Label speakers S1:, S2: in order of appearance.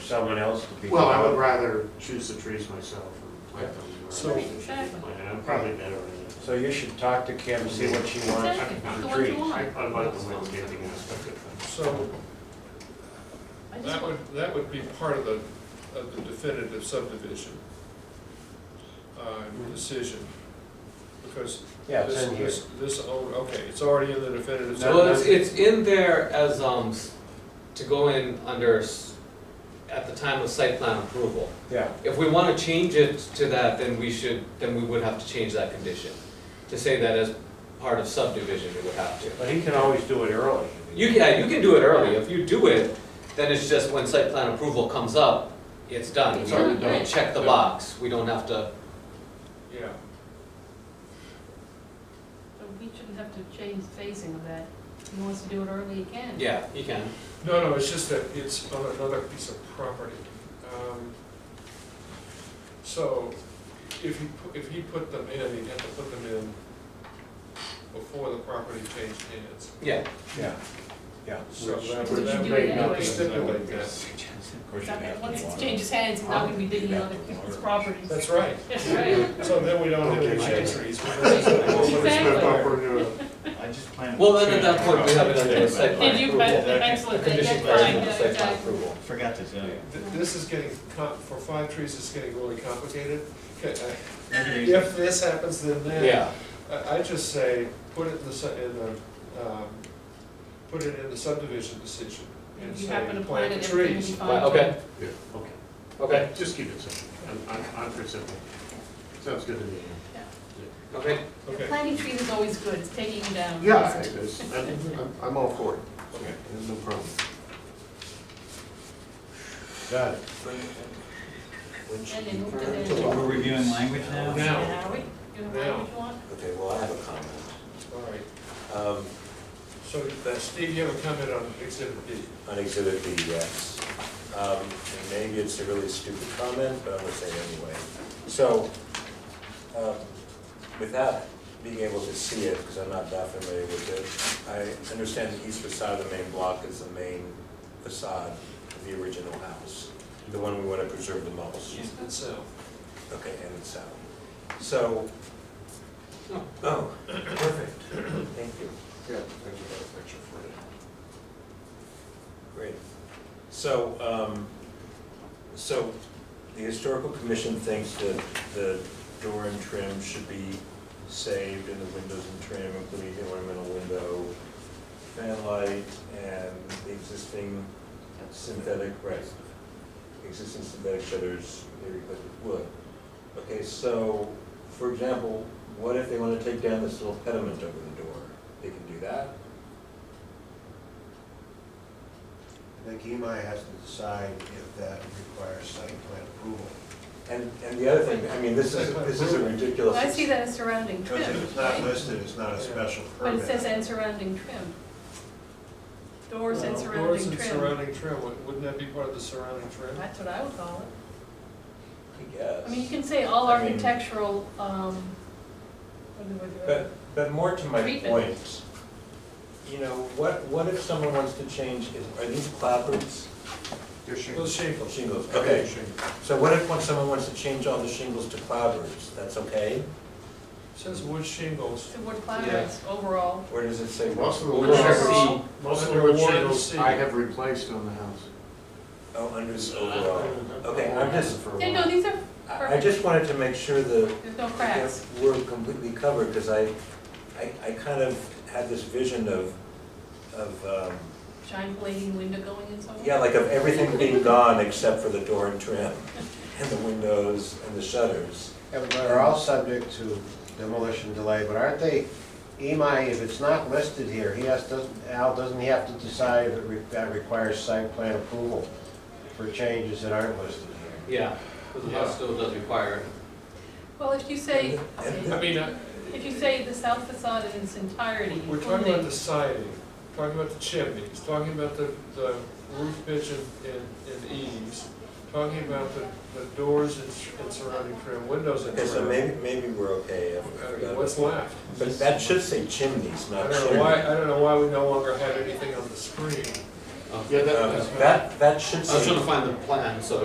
S1: someone else to be.
S2: Well, I would rather choose the trees myself and plant them. where I
S3: So-
S2: think they should be planted. I'm probably better at
S1: So you should talk to Kim, see what she wants
S2: Exactly,
S1: for
S4: the
S1: the
S4: ones you
S1: trees.
S4: want.
S2: it. I I like the landscaping aspect of things.
S3: So
S4: I just
S3: that
S4: want-
S3: would, that would be part of the, of the definitive subdivision uh, decision. Because
S1: Yeah, it's
S3: this-
S1: in here.
S3: this- This, al- okay, it's already in the definitive.
S1: No,
S5: Well, it's,
S3: subdivision.
S5: it's in there as, um, s- to go in under, s- at the time of site plan approval.
S1: Yeah,
S5: If we wanna change it to that, then we should, then we would have to change that condition. To say that as part of subdivision, we would have to.
S1: but he can always do it early.
S5: You can, yeah, you can do it early, if you do it, then it's just when site plan approval comes up, it's done.
S4: It's
S5: We-
S4: already
S5: we
S4: done.
S5: Check the box, we don't have to,
S3: Yeah,
S4: so We shouldn't have to change phasing of that. He wants to do it early, he can.
S5: yeah, you can.
S3: no, no, it's just that it's on another piece of property. Um, So if he, pu- if he put them in, he'd have to put them in before the property changed hands.
S5: Yeah,
S1: Yeah, yeah.
S3: So
S2: Which-
S3: that
S2: which
S3: would- that
S4: you do
S3: may not
S4: it
S3: be
S4: anyway.
S3: stipulated, yes.
S1: Of course
S4: It's
S1: you
S4: not gonna-
S1: have
S4: Once
S1: to
S4: it
S1: want
S4: changes hands, it's not gonna be digging on other people's properties.
S3: That's right.
S4: That's right.
S3: So then we don't have any
S2: Okay.
S3: shade trees.
S4: Exactly.
S2: Step up or do
S6: I just plan.
S5: well, then at that point, we have it under site plan
S4: Did
S5: approval.
S4: you, but, excellent, that's
S5: Condition
S4: fine,
S5: version of
S4: yeah,
S5: site plan
S4: exactly.
S5: approval.
S6: Forgot to tell you.
S3: Th- This is getting, com- for five trees, it's getting really complicated. Okay, uh,
S6: Anyway,
S3: If this happens, then that.
S5: Yeah,
S3: I, I just say, put it in the, su- in the, um, put it in the subdivision decision. and
S4: If you
S3: say,
S4: happen to plant it,
S3: the
S4: everything will be
S3: trees.
S4: fine.
S5: Well, okay,
S2: it. Okay.
S5: okay,
S2: Just keep it simple. I'm- I'm, I'm for simple. Sounds good to me.
S5: okay.
S3: Okay,
S4: Planting trees is always good, it's taking them down.
S2: Yeah, I- it's- I'm, I'm- I'm all for it.
S3: okay.
S2: There's no problem.
S1: Got it.
S4: Then they move to
S3: To
S4: the.
S3: what?
S6: we're reviewing language now?
S3: Now.
S4: Yeah, are we? You know
S3: Now.
S4: what you want?
S7: Okay, well, I have a comment.
S3: All right.
S7: Um,
S3: So, uh, Steve, you have a comment on exhibit B?
S7: On exhibit B, yes. Um, and Maybe it's a really stupid comment, but I'm gonna say it anyway. So, um, without being able to see it, because I'm not that familiar with it, I understand the east facade of the main block is the main facade of the original house, the one we want to preserve the most.
S3: East and south.
S7: Okay, and it's out. So, oh, perfect, thank you.
S2: Yeah, I think you got a picture for it.
S7: Great. So, um, so the historical commission thinks that the door and trim should be saved and the windows and trim, including the ornamental window, fan light, and the existing synthetic, right, existing synthetic shutters, they replace with wood. Okay, so, for example, what if they wanna take down this little pediment over the door? They can do that?
S8: I think EMI has to decide if that requires site plan approval.
S7: And, and the other thing, I mean, this is, this is a ridiculous.
S4: Well, I see that as surrounding trim,
S8: Because if it's not
S4: right?
S8: listed, it's not a special
S4: But
S8: permit.
S4: it says and surrounding trim. Doors and
S3: Well, Doors
S4: surrounding
S3: and
S4: trim.
S3: surrounding trim, Wou- wouldn't that be part of the surrounding trim?
S4: That's what I would call it.
S7: I guess.
S4: I mean, you can say all
S7: I mean-
S4: architectural, um, what do we do?
S7: But, but more to my
S4: Treatment.
S7: point, you know, what, what if someone wants to change, is- are these clapboards?
S2: Your shingles.
S3: Those shingles.
S7: Shingles, okay.
S2: Shingles.
S7: So what if when someone wants to change all the shingles to clapboards, that's okay?
S3: Says wood shingles.
S4: The wood clavards overall.
S7: Or does it say?
S2: Most of the
S5: We'll
S2: wood
S5: check
S2: shingles,
S5: C.
S2: most of the
S3: Under
S2: wood
S3: one
S2: shingles
S3: C.
S2: I have replaced on the house.
S7: Oh, under the overall, okay, I'm just,
S2: For a
S4: Yeah,
S2: while.
S4: no, these are,
S7: I I just wanted to make sure the,
S4: there's no cracks.
S7: We're completely covered, because I, I, I kind of had this vision of, of, um,
S4: Giant blading window going and so on.
S7: Yeah, like of everything being gone except for the door and trim, and the windows and the shutters.
S9: Yeah, but are all subject to demolition delay, but aren't they, EMI, if it's not listed here, he has, doesn't, Al, doesn't he have to decide if it re- that requires site plan approval for changes that aren't listed here?
S5: Yeah, because the house still does require it.
S4: Well, if you say,
S3: I mean, I-
S4: if you say the south facade in its entirety,
S3: We're talking about
S4: including,
S3: the siding, talking about the chimneys, talking about the, the roof pitch and, and- and eaves, talking about the, the doors and s- and surrounding trim, windows and
S7: Okay, so
S3: trim.
S7: maybe, maybe we're okay. I
S3: I
S7: forgot
S3: mean,
S7: about
S3: What's left?
S7: that. But that should say chimneys,
S3: I
S7: not
S3: don't know why,
S7: chimney.
S3: I don't know why we no longer have anything on the screen
S5: Oh.
S2: Yeah, that,
S7: Um,
S2: that's.
S7: That, that should
S5: I was trying
S7: say
S5: to find the plan, so